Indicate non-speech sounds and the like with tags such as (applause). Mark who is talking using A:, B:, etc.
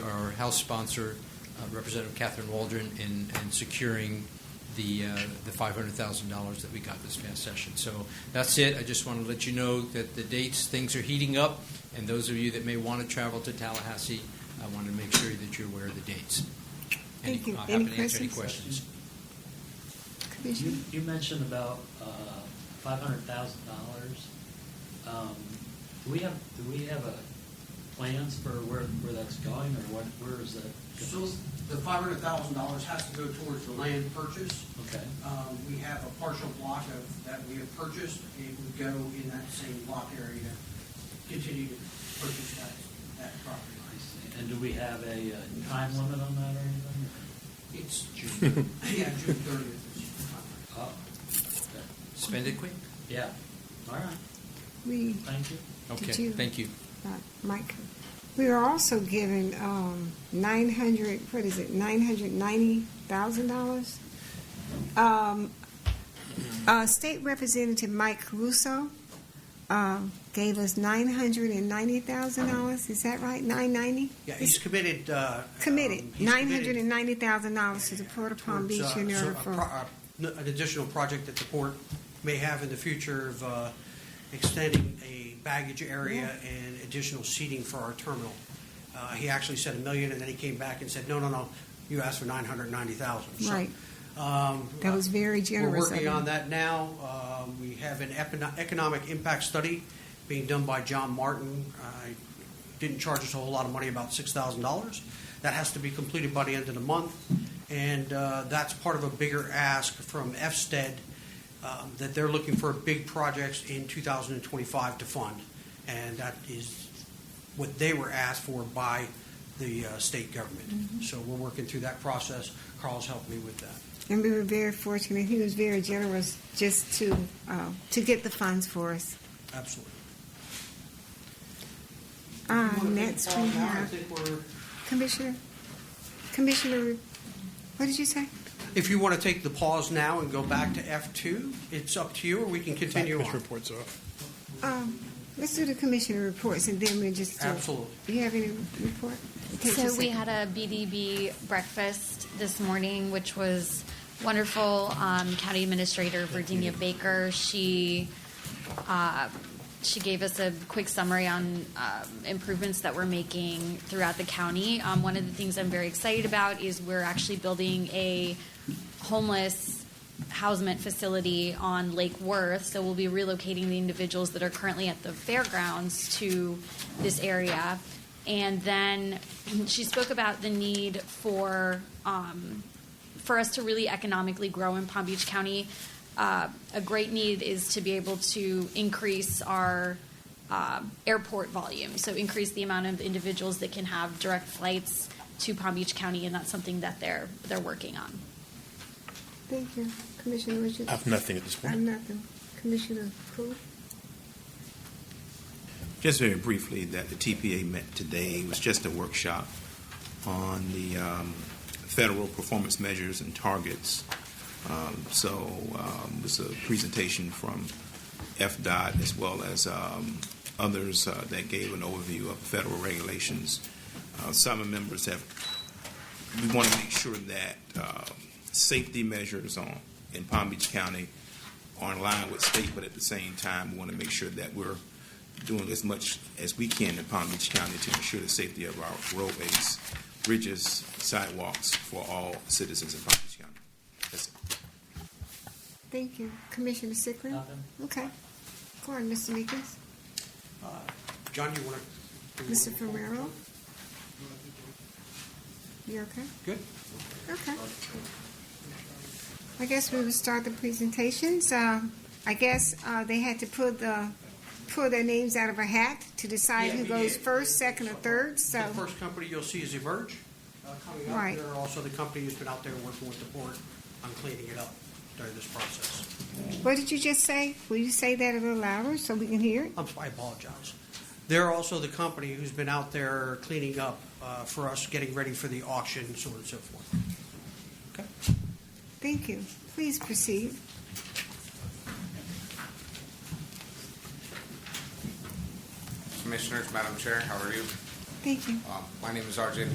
A: House sponsor, uh, Representative Catherine Waldron, in, in securing the, uh, the $500,000 that we got this past session. So that's it. I just want to let you know that the dates, things are heating up, and those of you that may want to travel to Tallahassee, I want to make sure that you're aware of the dates. Any-
B: Thank you.
A: I'll
B: Any
A: happy to answer any
B: questions?
A: questions.
B: Commissioner?
C: You, you mentioned about uh, five hundred thousand dollars. Do we have, do we have a plans for where, where that's going, or what, where is that?
D: So the five hundred thousand dollars has to go towards the land purchase.
C: Okay,
D: Um, we have a partial block of, that we have purchased, it would go in that same block area, continue to purchase that, that property
C: I
D: line.
C: see. And do we have a uh, time limit on that or anything?
D: It's June, yeah, June thirtieth.
C: Oh,
A: Spend it quick.
C: yeah, all right,
B: We,
C: thank you.
A: Okay,
B: Did you-
A: thank you.
B: uh, Mike, we are also given um, 900, what is it, $990,000? Um, uh, State Representative Mike Caruso um, gave us $990,000, is that right? 990?
D: Yeah, he's committed, uh. um,
B: Committed,
D: he's committed
B: $990,000 to the Port of Palm
D: towards,
B: Beach
D: uh, so
B: United
D: a
B: for...
D: pro- a- n- An additional project that the port may have in the future of uh, extending a baggage area and additional seating for our terminal. Uh, He actually said a million, and then he came back and said, no, no, no, you asked for 990,000. So,
B: Right.
D: um,
B: That was very generous
D: We're
B: of
D: working
B: him.
D: on that now. Um, We have an econo- economic impact study being done by John Martin. I didn't charge us a whole lot of money, about $6,000. That has to be completed by the end of the month, and uh, that's part of a bigger ask from FSTED, E um, that they're looking for big projects in 2025 to fund, and that is what they were asked for by the uh, state government. So we're working through that process. Carl's helped me with that.
B: And we were very fortunate. He was very generous just to, uh, to get the funds for us.
D: Absolutely.
B: Uh, next we have Commissioner, Commissioner, what did you say?
D: If you want to take the pause now and go back to F2, it's up to you, or we can continue
E: Commissioner
D: on.
E: reports off.
B: Um, let's do the commissioner reports and then we just do.
D: Absolutely.
B: You have any report? Take
F: So
B: just a-
F: we had a BDB breakfast this morning, which was wonderful. Um, County Administrator Virginia Baker, she uh, she gave us a quick summary on um, improvements that we're making throughout the county. Um, one of the things I'm very excited about is we're actually building a homeless housement facility on Lake Worth. So we'll be relocating the individuals that are currently at the fairgrounds to this area. And then (clears throat) she spoke about the need for um, for us to really economically grow in Palm Beach County. Uh, a great need is to be able to increase our uh, airport volume, so increase the amount of individuals that can have direct flights to Palm Beach County, and that's something that they're they're working on.
B: Thank you, Commissioner Richards.
E: I have nothing at this
B: I have
E: point.
B: nothing. Commissioner Cool?
G: Just very briefly, that the TPA met today It was just a workshop on the um, federal performance measures and targets. Um, so um, it was a presentation from FDOT as well as um, others uh, that gave an overview of federal regulations. Uh, some members have. We want to make sure that uh, safety measures on in Palm Beach County are in line with state, but at the same time, we want to make sure that we're doing as much as we can in Palm Beach County to ensure the safety of our roadways, bridges, sidewalks for all citizens in Palm Beach County. That's it.
B: Thank you. Commissioner Sickler?
C: Nothing.
B: Okay. Go on, Mr. Meekins.
D: John, you want to?
B: Mr. Ferrero? You okay?
D: Good.
B: Okay. I guess we would start the presentations. Um, I guess uh, they had to pull the, pull their names out of a hat to decide
D: Yeah,
B: who
D: we
B: goes
D: did.
B: first, second, or third, so.
D: The first company you'll see is Emerge uh, coming up.
B: Right.
D: They're also the company who's been out there working with the port on cleaning it up during this process.
B: What did you just say? Will you say that a little louder so we can hear it?
D: I'm, I apologize. They're also the company who's been out there cleaning up uh, for us, getting ready for the auction, so on and so forth. Okay?
B: Thank you. Please proceed.
H: Commissioners, Madam Chair, how are you?
B: Thank you.
H: Um, My name is RJ